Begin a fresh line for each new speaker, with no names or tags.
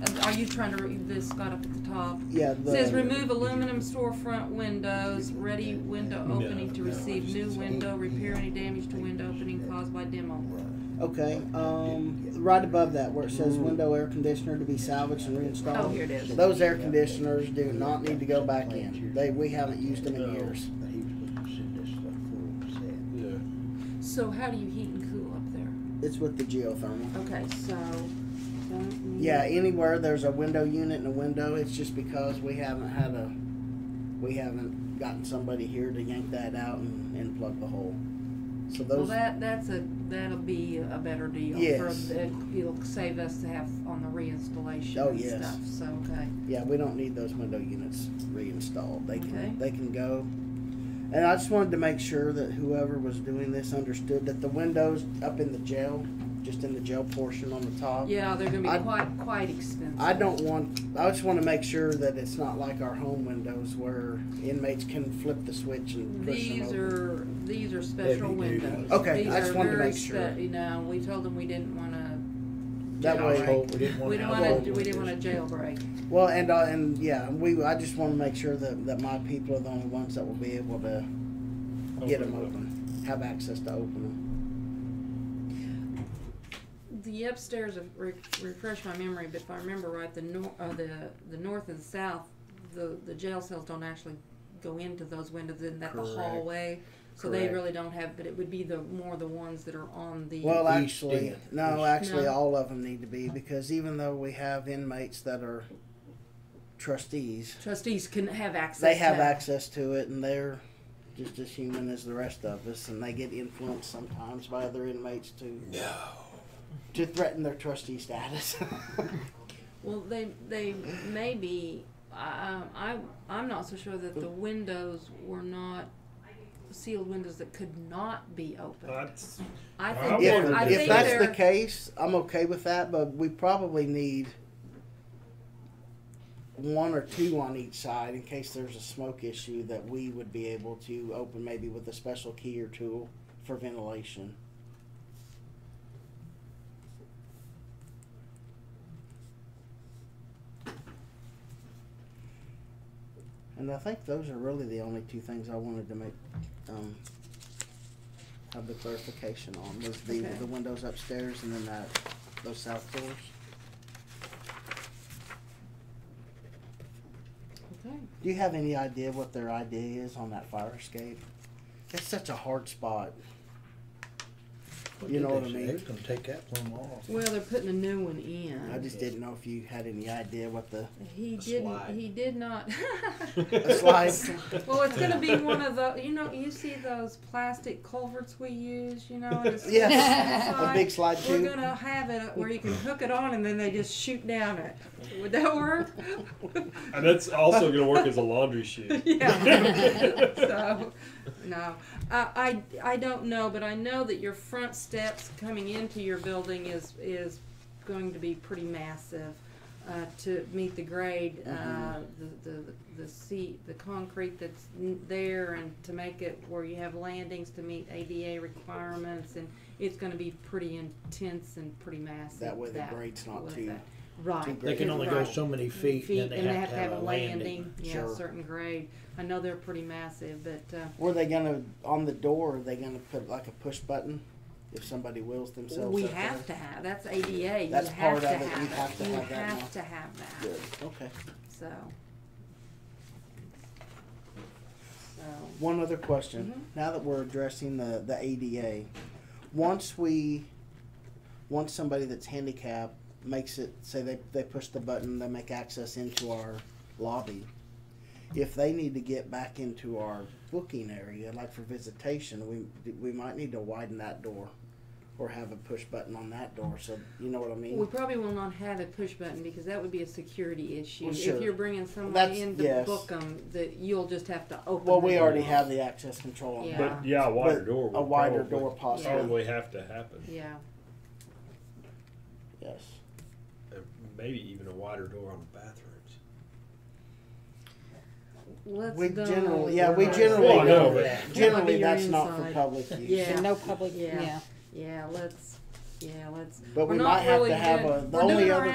And Are you trying to read this Got up at the top?
Yeah, the.
Says remove aluminum storefront windows, ready window opening to receive new window, repair any damage to window opening caused by demo.
Okay, um, right above that where it says window air conditioner to be salvaged and reinstalled.
Oh, here it is.
Those air conditioners do not need to go back in. They, we haven't used them in
No.
years.
Yeah.
So how do you heat and cool up there?
It's with the geothermal.
Okay, so. don't need-
Yeah, anywhere there's a window unit and a window, it's just because we haven't had a, we haven't gotten somebody here to yank that out and, and plug the hole. So
Well,
those,
that, that's a, that'll be a better deal. for-
Yes.
it- It'll save us to have on the reinstallation
Oh,
and
yes.
stuff, so, okay.
yeah, we don't need those window units reinstalled. They
Okay.
can, they can go. And I just wanted to make sure that whoever was doing this understood that the windows up in the jail, just in the jail portion on the top.
Yeah, they're gonna
I-
be quite, quite expensive.
I don't want, I just want to make sure that it's not like our home windows where inmates can flip the switch and push them
These
open.
are, these are special
Heavy duty.
windows.
Okay,
These
I just
are
wanted to
very
make sure.
spe- You know, we told them we didn't wanna,
That
Alright.
way.
Household, We didn't
we
want
didn't
household
wanna, we didn't wanna
windows.
jailbreak.
Well, and uh, and yeah, we. I just want to make sure that, that my people are the only ones that will be able to get them open, have access to open them.
The upstairs, of- re- refresh my memory, but if I remember right, the nor, uh, the, the north and south, the, the jail cells don't actually go into those windows, isn't that the
Correct.
hallway? So they
Correct.
really don't have, but it would be the, more the ones that are on the.
Well,
East
actually,
end.
no, actually,
No.
all of them need to be because even though we have inmates that are trustees,
Trustees can have access.
they have
to-
access to it, and they're just as human as the rest of us, and they get influenced sometimes by other inmates to to threaten their trustee status.
Well, they, they may be, I, um, I, I'm not so sure that the windows were not sealed windows that could not be opened.
That's,
I
I
think,
wondered
they're- I
If,
if
think
if that's the
they're,
case, I'm okay with that, but we probably need one or two on each side in case there's a smoke issue that we would be able to open maybe with a special key or tool for ventilation. And I think those are really the only two things I wanted to make, um, have the clarification on, was the,
Okay.
the windows upstairs and then that, those south doors.
okay.
Do you have any idea what their idea is on that fire escape? It's such a hard spot. You know what I mean?
They're gonna take that plumb off.
Well, they're putting a new one in.
I just didn't know if you had any idea what the
He
A
didn't.
slide.
He did not.
the slide.
well, it's gonna be one of the. You know, you see those plastic culverts we use. You know, and it's
Yes,
slide?
a big slide
We're
too.
gonna have it where you can hook it on and then they just shoot down it. Would that work?
and that's also going to work as a laundry chute.
yeah. so, no, I, I I don't know, but I know that your front steps coming into your building is is going to be pretty massive. Uh, to meet the grade, uh,
Mm-hmm.
the, the the seat, the concrete that's n- there, and to make it where you have landings to meet ADA requirements, and it's going to be pretty intense and pretty massive.
That way the grade's not
with
too-
that. right.
too
They can
Right.
only go so many feet,
feet,
and then they have to have a landing.
landing. Yeah,
Sure.
a certain grade. I know they're pretty massive, but uh,
Were they gonna, on the door, are they gonna put like a push button if somebody wheels themselves
we
up there?
have to have, that's ADA. You
That's
have
part of
to
it. You
have
have
it.
to
You
have that now.
have to have that,
Good, okay.
so. So,
One other question. Now that we're addressing the, the ADA, once we, once somebody that's handicapped makes it, say they, they push the button, they make access into our lobby, if they need to get back into our booking area, like for visitation, we, we might need to widen that door or have a push button on that door, so, you know what I
we
mean?
probably will not have a push button because that would be a security issue.
Well,
If
sure.
you're bringing someone
That's-
in to
yes.
book them, that you'll just have to open.
Well, we
the
already
door.
have the access control on that.
But yeah, a wider
But
door. would
A wider
probably-
door possibly,
Probably have to happen.
Yeah,
yes.
And Maybe even a wider door on the bathrooms.
let's.
We
go
generally,
with
yeah, we
the-
generally
Well, I
don't.
know, but-
Generally,
Yeah,
that's not for
inside.
public use.
Yeah.
And no public,
Yeah.
yeah.
Yeah, let's, yeah, let's.
But
We're
we
not
might have
really
to have
good-
a, the
we're doing
only
our
other